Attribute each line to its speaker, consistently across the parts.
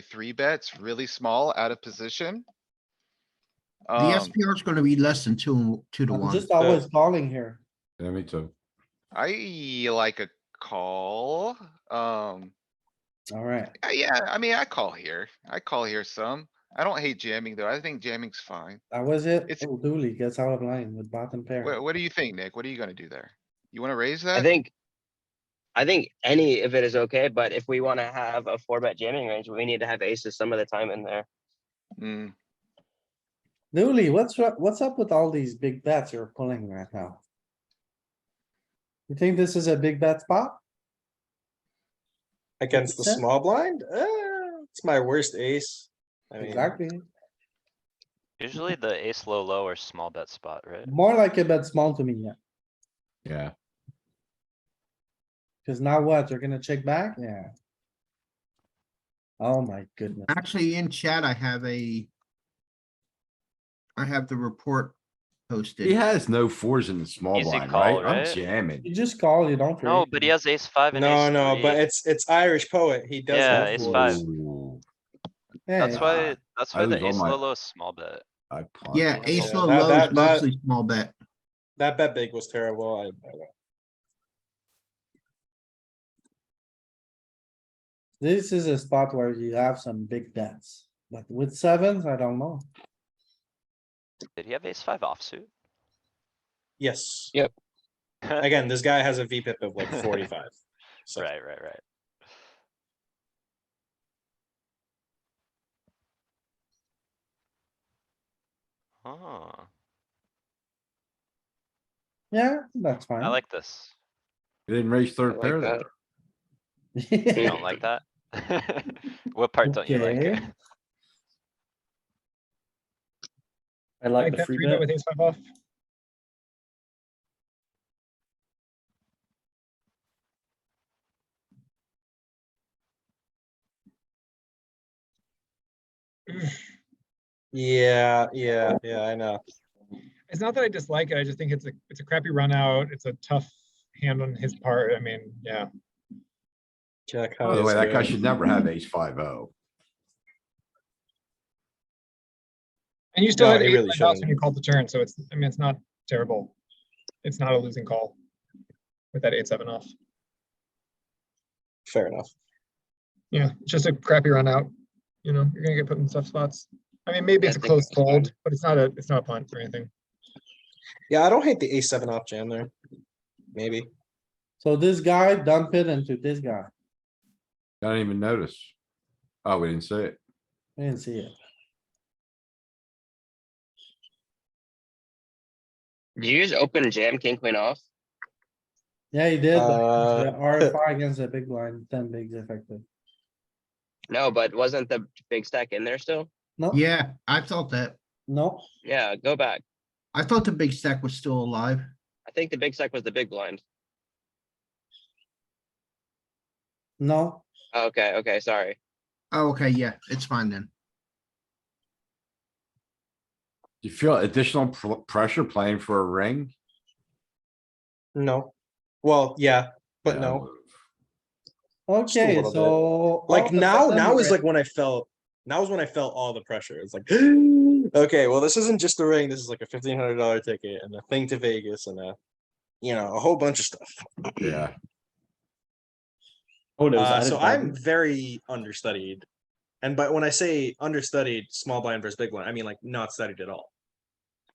Speaker 1: three bets really small out of position.
Speaker 2: The
Speaker 1: Um,
Speaker 2: SPR is gonna be less than two, two to
Speaker 3: I'm
Speaker 2: one.
Speaker 3: just always calling here.
Speaker 4: Yeah, me too.
Speaker 1: I like a call, um,
Speaker 3: Alright,
Speaker 1: uh, yeah, I mean, I call here. I call here some. I don't hate jamming though. I think jamming's fine.
Speaker 3: that was it.
Speaker 1: It's-
Speaker 3: Oh, Dooley gets out of line with bottom pair.
Speaker 1: What, what do you think, Nick? What are you gonna do there? You wanna raise
Speaker 5: I
Speaker 1: that?
Speaker 5: think, I think any of it is okay, but if we wanna have a four bet jamming range, we need to have aces some of the time in there.
Speaker 1: Mm,
Speaker 3: Dooley, what's, ru- what's up with all these big bets you're pulling right now? You think this is a big bet spot?
Speaker 6: Against the
Speaker 3: Understand?
Speaker 6: small blind? Uh, it's my worst ace. I mean,
Speaker 3: Exactly.
Speaker 7: Usually the ace low low or small bet spot, right?
Speaker 3: More like a bet small to me, yeah.
Speaker 4: Yeah,
Speaker 3: Cause now what? You're gonna check back? Yeah. Oh my goodness.
Speaker 2: Actually, in chat, I have a. I have the report posted.
Speaker 4: he has no fours in the small
Speaker 7: Easy
Speaker 4: blind,
Speaker 7: call,
Speaker 4: right? I'm
Speaker 7: right?
Speaker 4: jamming.
Speaker 3: You just call, you don't.
Speaker 7: No,
Speaker 3: raise.
Speaker 7: but he has ace five and
Speaker 6: no,
Speaker 7: ace
Speaker 6: no, but
Speaker 7: three.
Speaker 6: it's, it's Irish poet. He does.
Speaker 7: Yeah,
Speaker 6: have
Speaker 7: ace
Speaker 6: fours.
Speaker 7: five.
Speaker 4: Ooh,
Speaker 3: Yeah,
Speaker 7: That's
Speaker 3: yeah.
Speaker 7: why, that's
Speaker 4: I
Speaker 7: why
Speaker 4: was
Speaker 7: the
Speaker 4: on
Speaker 7: ace
Speaker 4: my-
Speaker 7: low low is small bet.
Speaker 4: I punt.
Speaker 2: Yeah, ace
Speaker 6: Yeah,
Speaker 2: low
Speaker 6: that-
Speaker 2: low is
Speaker 6: that- that-
Speaker 2: mostly small bet.
Speaker 6: That bet big was terrible. I- I,
Speaker 3: This is a spot where you have some big bets, but with sevens, I don't know.
Speaker 7: Did he have ace five offsuit?
Speaker 6: yes.
Speaker 7: Right,
Speaker 6: Again, this guy has a VPIP of like forty-five. So
Speaker 7: right, right. Oh,
Speaker 3: Yeah, that's fine.
Speaker 7: I like this.
Speaker 4: He Didn't raise third
Speaker 5: like
Speaker 4: pair
Speaker 5: that.
Speaker 4: there.
Speaker 7: You don't like that? What part don't you like?
Speaker 3: Okay.
Speaker 8: I like the free bet.
Speaker 6: Yeah, yeah, yeah, I know.
Speaker 9: It's not that I dislike it, I just think it's a, it's a crappy run out, it's a tough hand on his part, I mean, yeah.
Speaker 6: Check how
Speaker 4: By the
Speaker 6: this
Speaker 4: way, that guy
Speaker 6: goes.
Speaker 4: should never have ace five oh.
Speaker 9: And you still
Speaker 6: No,
Speaker 9: had
Speaker 6: he
Speaker 9: eight
Speaker 6: really
Speaker 9: line outs
Speaker 6: shouldn't.
Speaker 9: when you called the turn, so it's, I mean, it's not terrible. It's not a losing call with that eight, seven off.
Speaker 6: Fair enough.
Speaker 9: Yeah, it's just a crappy run out, you know, you're gonna get put in tough spots. I mean, maybe
Speaker 5: I
Speaker 9: it's a
Speaker 5: think
Speaker 9: close
Speaker 5: it's fine.
Speaker 9: fold, but it's not a, it's not a punt or anything.
Speaker 6: Yeah, I don't hate the ace seven off jam there. Maybe.
Speaker 3: So this guy dump it into this guy.
Speaker 4: I didn't even notice. Oh, we didn't see it.
Speaker 3: I didn't see it.
Speaker 5: Do you just open and jam king queen off?
Speaker 3: Yeah, he did.
Speaker 6: Uh,
Speaker 3: R five against a big line, ten bigs effective.
Speaker 5: No, but wasn't the big stack in there still?
Speaker 3: No,
Speaker 2: Yeah, I thought that.
Speaker 3: no,
Speaker 5: Yeah, go back.
Speaker 2: I thought the big stack was still alive.
Speaker 5: I think the big stack was the big blind.
Speaker 3: no.
Speaker 5: Okay, okay, sorry.
Speaker 2: Oh, okay, yeah, it's fine then.
Speaker 4: Do you feel additional pr- pressure playing for a ring?
Speaker 6: No. Well, yeah, but
Speaker 4: Yeah,
Speaker 6: no. Just a
Speaker 3: Okay,
Speaker 6: little bit.
Speaker 3: so. all
Speaker 6: Like
Speaker 3: of a
Speaker 6: now,
Speaker 3: sudden
Speaker 6: now
Speaker 3: we're
Speaker 6: is
Speaker 3: at-
Speaker 6: like when I felt, now is when I felt all the pressure. It's like, okay, well, this isn't just a ring. This is like a fifteen hundred dollar ticket and a thing to Vegas and a, you know, a whole bunch of stuff.
Speaker 4: Yeah,
Speaker 8: Oh, no.
Speaker 6: Uh, so I'm very understudied. And but when I say understudied, small blind versus big blind, I mean like not studied at all.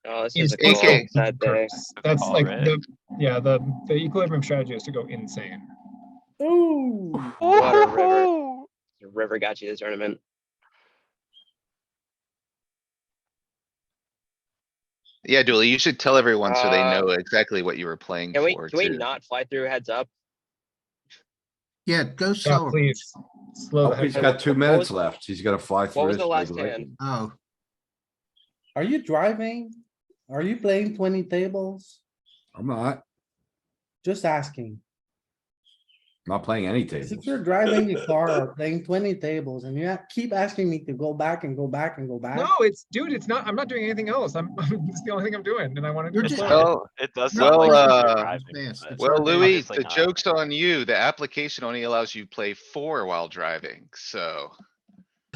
Speaker 5: Oh, this
Speaker 9: He's
Speaker 5: is a cool
Speaker 1: AK.
Speaker 5: side there.
Speaker 9: That's
Speaker 7: Call,
Speaker 9: like
Speaker 7: right?
Speaker 9: the, yeah, the, the equilibrium strategy is to go insane.
Speaker 3: Ooh,
Speaker 5: What a river. The River got you this tournament.
Speaker 1: Yeah, Dooley, you should tell everyone so they
Speaker 5: Uh,
Speaker 1: know exactly what you were playing
Speaker 5: Can we,
Speaker 1: for
Speaker 5: can we
Speaker 1: too.
Speaker 5: not fly through heads up?
Speaker 2: Yeah, go
Speaker 9: Yeah,
Speaker 2: slower.
Speaker 9: please, slow
Speaker 4: Oh,
Speaker 9: the
Speaker 4: he's
Speaker 9: heck.
Speaker 4: got two minutes
Speaker 5: was-
Speaker 4: left. He's gonna fly through.
Speaker 5: What was
Speaker 4: this
Speaker 5: the last
Speaker 4: big leg.
Speaker 5: hand?
Speaker 2: Oh,
Speaker 3: are you driving? Are you playing twenty tables?
Speaker 4: I'm not,
Speaker 3: Just asking.
Speaker 4: not playing any
Speaker 3: If
Speaker 4: tables.
Speaker 3: you're driving your car or playing twenty tables and you ha- keep asking me to go back and go back and go back.
Speaker 9: No, it's, dude, it's not, I'm not doing anything else, I'm, it's the only thing I'm doing, and I wanna. do
Speaker 2: You're
Speaker 9: it
Speaker 2: just-
Speaker 9: slow.
Speaker 1: Well,
Speaker 7: It does
Speaker 1: No,
Speaker 7: sound like.
Speaker 1: well,
Speaker 7: he's
Speaker 1: uh,
Speaker 7: driving,
Speaker 2: Yes,
Speaker 7: but
Speaker 2: it's
Speaker 1: Well,
Speaker 2: not bad.
Speaker 1: Louis,
Speaker 7: obviously
Speaker 1: the
Speaker 7: not.
Speaker 1: joke's on you. The application only allows you play four while driving, so